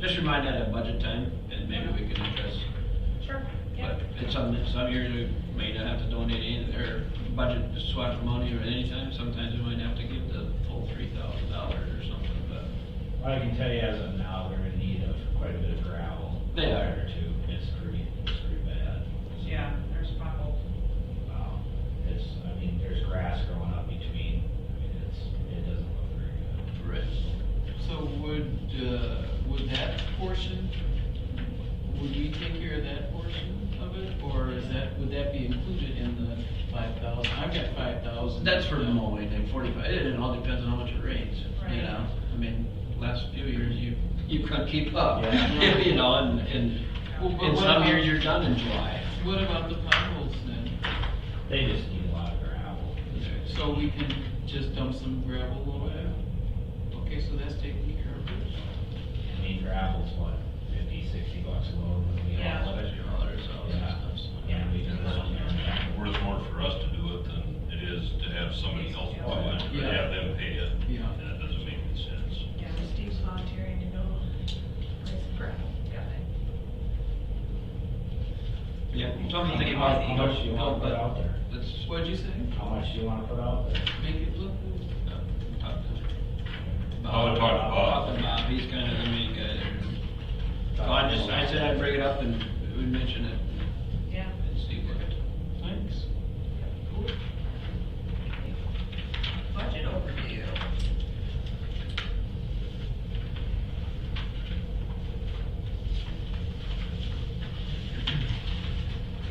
Just remind that at budget time, and maybe we can address, Sure, yeah. but it's some, some years we may not have to donate any, or budget to swap money or anytime, sometimes we might have to give the full three thousand dollars or something, but. Well, I can tell you as of now, they're in need of quite a bit of gravel. They are. Too, it's pretty, it's pretty bad. So, Yeah, there's potholes. Wow, it's, I mean, there's grass growing up between, I mean, it's, it doesn't look very good. So would, uh, would that portion, would we take care of that portion of it, or is that, would that be included in the five thousand? I've got five thousand. That's for the mowing, and forty-five, it it all depends on how much it rains, you Right. know? I mean, last few years, you, you couldn't keep up, Yeah. you know, and, and Well, but in what some about- years, you're done in July. What about the potholes then? They just need a lot of gravel. So we can just dump some gravel over there? Okay, so that's taken care of. I mean, gravel's what, fifty, sixty bucks a load when we Yeah. haul it? Oh, Yeah, we do that. It's Worth more for us to do it than it is to have somebody else do it, and Yeah. have them pay it. Yeah. That doesn't make any sense. Yeah, Steve's volunteering to go raise gravel. Got it. Yeah, so I'm thinking about. How much do you wanna put out there? Let's, What'd you say? How much do you wanna put out there? Make it look good? uh, talk to. I would talk to Bob. Talk to Bob, he's kind of the main guy there. So I just, I said I'd bring it up and we'd mention it Yeah. and see what. Thanks. Cool. Budget overview.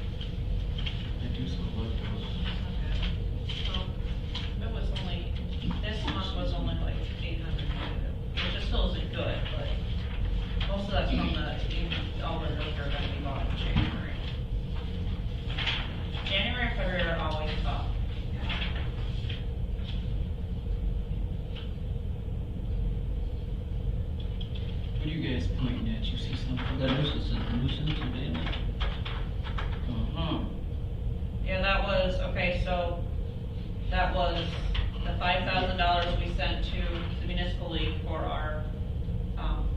I do so love those. Well, It was only, this month was only like eight hundred, which still isn't good, but most of that's from the, all the liquor that we bought in January. January and February are always up. What are you guys pointing at? You see something? The nuisance, the nuisance abatement. Uh-huh. Yeah, that was, okay, so that was the five thousand dollars we sent to the municipal league for our, um,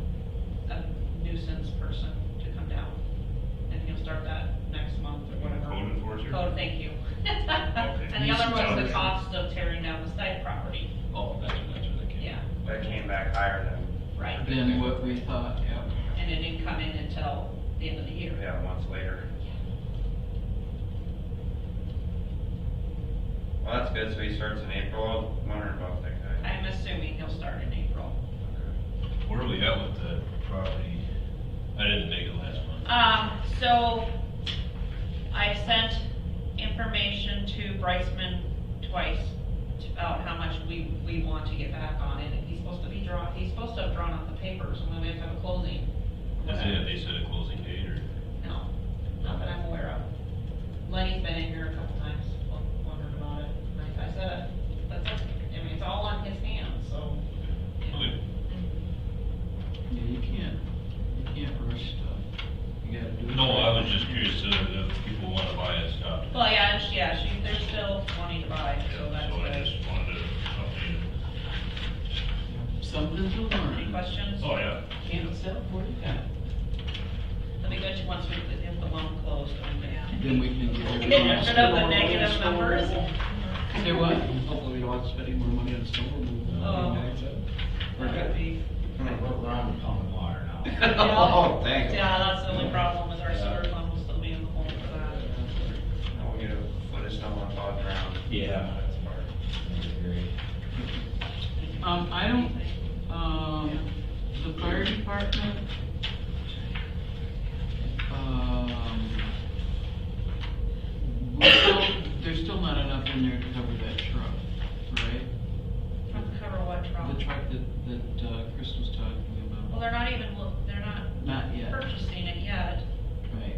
a nuisance person to come down. And he'll start that next month or whatever. Code enforcer? Code, thank you. And the other was the Nuisance. cost of tearing down the side property, Oh, that's, that's what I came. yeah, But it came back higher than, right. than what we thought, yeah. And it didn't come in until the end of the year. yeah, months later. Well, that's good, so he starts in April, I'm wondering about that guy. I'm assuming he'll start in April. Where are we at with the property? I didn't make it last month. Um, so I sent information to Bryceman twice about how much we, we want to get back on it. And he's supposed to be draw, he's supposed to have drawn up the papers and then we have to have a closing. Is it, they said a closing date or? No, not that I'm aware of. Lenny's been in here a couple times, won- wondered about it. And I I said, uh, that's, it. I mean, it's all on his hands, so. yeah. Okay. Yeah, you can't, you can't rush stuff. You gotta do it. No, I was just curious to, if people wanna buy it, stop. Well, yeah, and she, yeah, she, they're still wanting to buy, so that's So I good. just wanted to update it. Something to Any learn. questions? Oh, yeah. Can't sell what you got. Let me bet you once we get the loan closed, I'm gonna. Then we can get Get everything else. rid of the going. negative numbers. Say what? Hopefully we don't want to spend any more money on snow removal. Oh. We're good. We're, we're on the pumping water now. Oh, thank you. Yeah, that's the only problem is our sewer fund will still be in the uh, hole for that. Now we get a foot of snow on top ground. Yeah. That's part. I agree. Um, I don't, um, the fire department, um, we're still, there's still not enough in there to cover that truck, right? Cover what The problem? truck that, that uh, Chris was talking Well, about. they're not even, look- they're not Not yet, purchasing it yet. right,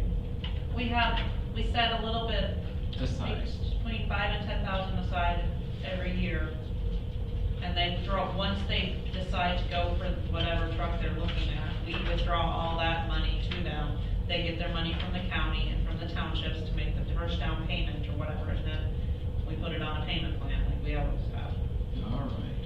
We have, we set a little bit aside. between five and ten thousand aside every year. And they draw, once they decide to go for whatever truck they're looking at, we withdraw all that money to them. They get their money from the county and from the townships to make the first down payment or whatever, and then we put it on a payment plan like we always have. All right.